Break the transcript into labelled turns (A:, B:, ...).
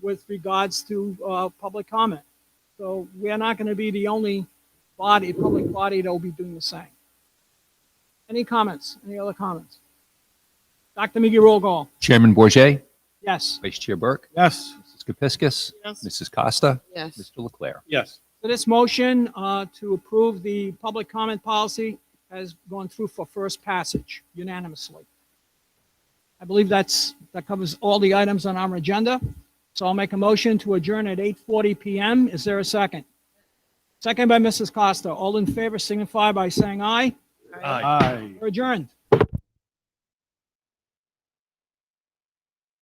A: with regards to uh, public comment. So we're not going to be the only body, public body that will be doing the same. Any comments? Any other comments? Dr. McGee, roll call.
B: Chairman Bourget,
A: Yes.
B: Vice Chair Burke,
C: Yes.
B: Mrs. Kepiscus,
A: So
B: Mrs. Costa,
D: Yes,
B: Mr. Leclerc.
C: Yes.
A: this motion uh, to approve the public comment policy has gone through for first passage unanimously. I believe that's, that covers all the items on our agenda. So I'll make a motion to adjourn at 8:40 PM. Is there a second? Second by Mrs. Costa. All in favor signify by saying aye.
C: Aye.
A: We're adjourned.